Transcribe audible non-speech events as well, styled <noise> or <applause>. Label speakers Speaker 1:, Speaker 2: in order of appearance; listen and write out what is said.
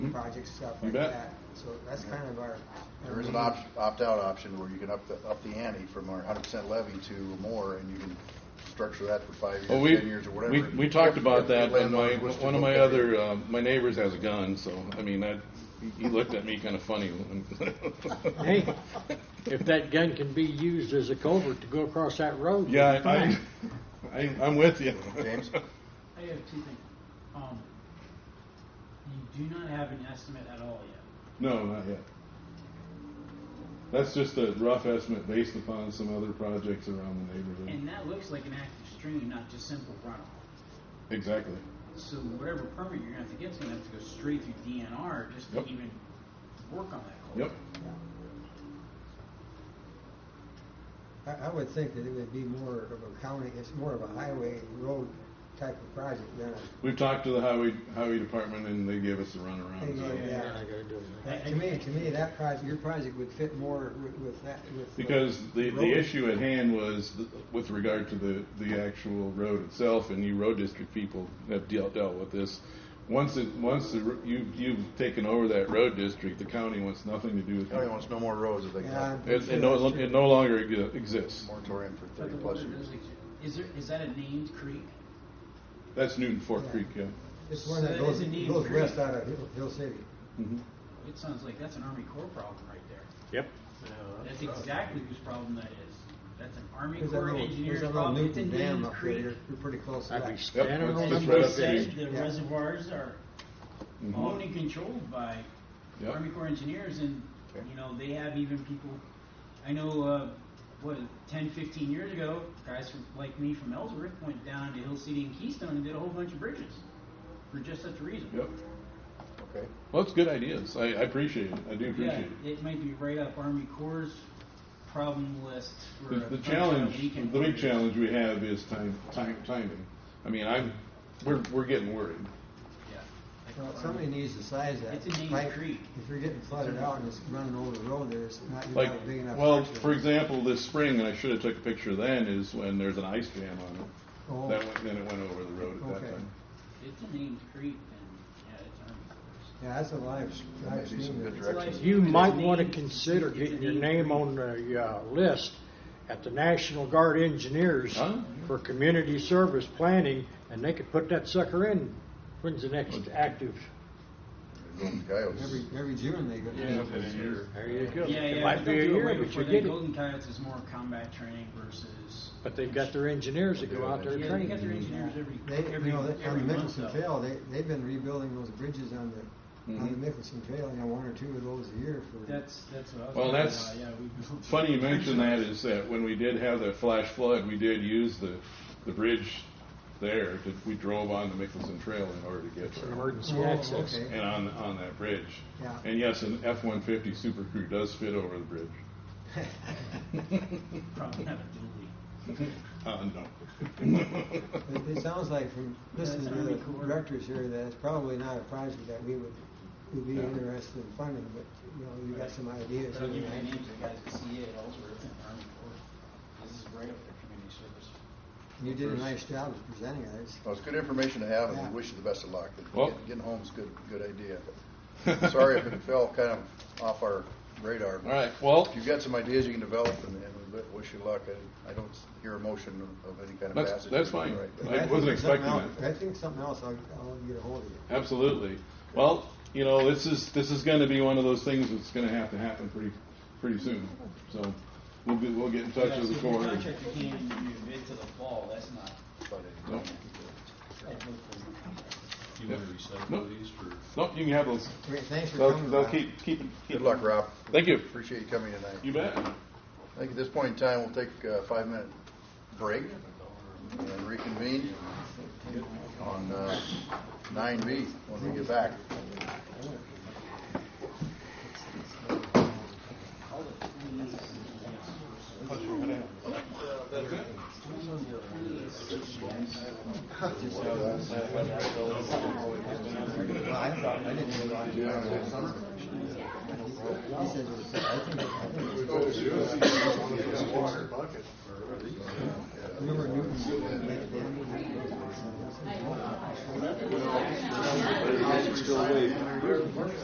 Speaker 1: projects, stuff
Speaker 2: Hmm? You
Speaker 1: like
Speaker 2: bet.
Speaker 1: that. So that's kind of our.
Speaker 3: There is an opt,
Speaker 2: Mm-hmm.
Speaker 3: opt-out option where you can up the, up the ante from our hundred percent levy to more, and you can structure that for five
Speaker 2: Well,
Speaker 3: years,
Speaker 2: we,
Speaker 3: ten years, or whatever.
Speaker 2: we, we talked
Speaker 3: If-
Speaker 2: about
Speaker 3: if
Speaker 2: that, and my,
Speaker 3: landowner was to
Speaker 2: one of
Speaker 3: look
Speaker 2: my
Speaker 3: at it.
Speaker 2: other, uh, my neighbors has a gun, so, I mean, that,
Speaker 3: <laughs>
Speaker 2: he looked at me kinda funny.
Speaker 4: Hey, if that gun can be used as a culvert to go across that
Speaker 2: <laughs>
Speaker 4: road.
Speaker 2: Yeah, I,
Speaker 4: fine.
Speaker 2: I, I- I'm with you.
Speaker 3: James?
Speaker 5: I have two things. Um, you do not have an estimate at all yet.
Speaker 2: <laughs> No, not yet. That's just a rough estimate based upon some other projects around the neighborhood.
Speaker 5: And that looks like an active stream, not just simple runoff.
Speaker 2: Exactly.
Speaker 5: So whatever permit you're gonna have to get, is gonna have to go straight through DNR just to
Speaker 2: Yep.
Speaker 5: even work on that culvert.
Speaker 2: Yep.
Speaker 1: I, I would think that it would be more of a county, it's more of a highway road type of project than a.
Speaker 2: We've talked to the highway, highway department, and they gave us a runaround,
Speaker 1: Yeah,
Speaker 2: so.
Speaker 1: yeah.
Speaker 4: Yeah, I gotta do it.
Speaker 1: that- To me, to me, that project, your project would fit more with, with that, with.
Speaker 2: Because the, the
Speaker 1: road.
Speaker 2: issue at hand was th- with regard to the, the actual road itself, and you road district people have dealt, dealt with this. Once it, once the, r- you, you've taken over that road district, the county wants nothing to do with
Speaker 3: I don't
Speaker 2: it.
Speaker 3: even want to know more roads if they can.
Speaker 1: Yeah,
Speaker 3: have
Speaker 2: It, it no,
Speaker 1: Sure, sure.
Speaker 2: it no longer exi- exists.
Speaker 3: Moratorium for
Speaker 5: But
Speaker 3: thirty
Speaker 5: the
Speaker 3: plus
Speaker 5: water
Speaker 3: years.
Speaker 5: does exist. Is there, is that a named creek?
Speaker 2: That's Newton Fork Creek, yeah.
Speaker 1: It's one that
Speaker 5: So
Speaker 1: goes,
Speaker 5: is it need
Speaker 1: goes
Speaker 5: for-
Speaker 1: west out of Hill- Hill City.
Speaker 2: Mhm.
Speaker 5: It sounds like that's an Army Corps problem right there.
Speaker 4: Yep.
Speaker 5: That's exactly whose problem that is. That's an Army
Speaker 1: There's that
Speaker 5: Corps
Speaker 1: little-
Speaker 5: engineer's
Speaker 1: There's that little
Speaker 5: problem. It's a
Speaker 1: Newton Dam
Speaker 5: named
Speaker 1: up there,
Speaker 5: creek.
Speaker 1: you're, you're pretty close to
Speaker 4: I'd be
Speaker 1: that.
Speaker 4: standing
Speaker 2: it's
Speaker 4: on
Speaker 2: just
Speaker 4: them
Speaker 2: right
Speaker 5: They
Speaker 2: up there.
Speaker 4: bushes.
Speaker 5: said the
Speaker 1: Yeah.
Speaker 5: reservoirs are
Speaker 2: Mhm.
Speaker 5: owned and controlled by
Speaker 2: Yep.
Speaker 5: Army Corps engineers and,
Speaker 3: Okay.
Speaker 5: you know, they have even people, I know, uh, what, 10, 15 years ago, guys from, like me from Ellsworth went down to Hill City and Keystone and did a whole bunch of bridges for just such a reason.
Speaker 2: Yep.
Speaker 3: Okay.
Speaker 2: Well, it's good ideas. I, I appreciate it. I do
Speaker 5: Yeah,
Speaker 2: appreciate it.
Speaker 5: it might be right up Army Corps' problem list
Speaker 2: The,
Speaker 5: for. a
Speaker 2: the
Speaker 5: bunch of
Speaker 2: challenge,
Speaker 5: weekend
Speaker 2: the big
Speaker 5: warriors.
Speaker 2: challenge we have is time, time, timing. I mean, I'm, we're, we're getting worried.
Speaker 5: Yeah.
Speaker 1: Well, somebody needs to size that.
Speaker 5: It's a named
Speaker 1: pipe.
Speaker 5: creek.
Speaker 1: If you're getting flooded out and it's running over the road there, it's not, you're
Speaker 2: Like,
Speaker 1: not big enough.
Speaker 2: well,
Speaker 1: structure.
Speaker 2: for example, this spring, and I should have took a picture then, is when there's an ice jam on it.
Speaker 1: Oh,
Speaker 2: That went, then it went over the road at that
Speaker 1: Okay.
Speaker 2: time.
Speaker 5: It's a named creek and, yeah, it's Army Corps.
Speaker 1: Yeah, that's a live, live
Speaker 3: Maybe some
Speaker 1: stream.
Speaker 3: good
Speaker 1: there.
Speaker 3: direction.
Speaker 5: like-
Speaker 4: You might wanna consider getting your name on the, uh, list at the National Guard Engineers
Speaker 2: Huh?
Speaker 4: for community service planning, and they could put that sucker in. When's the next active?
Speaker 3: Golden Coyotes.
Speaker 1: Every, every June they go.
Speaker 4: There you go.
Speaker 5: Yeah,
Speaker 4: It
Speaker 5: yeah.
Speaker 4: might be a year, but you get it.
Speaker 5: Golden Coyotes is more combat training versus.
Speaker 4: But they've got their engineers that go out there and
Speaker 5: Yeah, they
Speaker 4: train.
Speaker 5: got their engineers every,
Speaker 1: They,
Speaker 5: every,
Speaker 1: you know, they- on
Speaker 5: every
Speaker 1: the
Speaker 5: month
Speaker 1: Mickelson
Speaker 5: though.
Speaker 1: Trail, they, they've been rebuilding those bridges on the, on the Mickelson Trail, you know, one or two of those a year for.
Speaker 5: That's, that's what I was.
Speaker 2: Well,
Speaker 5: talking
Speaker 2: that's
Speaker 5: about. Yeah, we built-
Speaker 2: Funny you mention that is that when we did have that flash flood, we did use the, the bridge there. to- We drove on the Mickelson Trail in order to get
Speaker 4: It's an
Speaker 2: there.
Speaker 4: emergency
Speaker 1: Oh,
Speaker 4: access.
Speaker 1: okay.
Speaker 2: And on, on that bridge.
Speaker 1: Yeah.
Speaker 2: And yes, an F-150 Super Crew does fit over the bridge.
Speaker 5: Probably have a dually.
Speaker 2: Uh, no.
Speaker 1: <laughs> It, it sounds like from listening to
Speaker 5: That's
Speaker 1: the
Speaker 5: Army Corps.
Speaker 1: directors here that it's probably not a project that we would, would be
Speaker 2: Yeah.
Speaker 1: interested in funding, but, you know, you got some ideas.
Speaker 5: But I'll give you
Speaker 1: here,
Speaker 5: the
Speaker 1: right?
Speaker 5: names of the guys at CA at Ellsworth and Army Corps. This is right up their community service.
Speaker 1: You did a nice job of presenting it. It's-
Speaker 3: Well, it's good information to have, and we
Speaker 1: Yeah.
Speaker 3: wish you the best of luck. But
Speaker 2: Well-
Speaker 3: get- Getting home's good, good idea. Sorry if
Speaker 2: <laughs>
Speaker 3: it fell kind of off our radar.
Speaker 2: All right, well,
Speaker 3: If you've got some ideas you can develop, and, and we wish you luck. I, I don't hear a motion of any kind of
Speaker 2: That's-
Speaker 3: passage.
Speaker 2: that's fine.
Speaker 3: Right.
Speaker 2: I
Speaker 1: I think
Speaker 2: wasn't
Speaker 1: something
Speaker 2: expecting
Speaker 1: else-
Speaker 2: that.
Speaker 1: I think something else, I'll, I'll get a hold of you.
Speaker 2: Absolutely. Well, you know, this is this is going to be one of those things that's going to have to happen pretty pretty soon. So we'll be, we'll get in touch
Speaker 5: Yeah,
Speaker 2: with
Speaker 5: so
Speaker 2: the
Speaker 5: if your
Speaker 2: coroner.
Speaker 5: Contractor can't even do a bid till the fall, that's not.
Speaker 2: No,
Speaker 5: that's no problem.
Speaker 6: You want to recycle these for?
Speaker 2: no, you can have those.
Speaker 1: Great, thanks for
Speaker 2: They'll,
Speaker 1: coming.
Speaker 2: they'll
Speaker 1: Bob.
Speaker 2: keep keep it. keep
Speaker 3: uh, Good luck,
Speaker 2: it.
Speaker 3: Rob.
Speaker 2: Thank you.
Speaker 3: Appreciate you coming tonight.
Speaker 2: You bet.
Speaker 3: I think at this point in time, we'll take a five-minute break and reconvene on uh, 9B when we get back.
Speaker 1: Well, I thought, I didn't realize you were on that summer. He says, it was- I think, I think it was. Remember Newton? back then?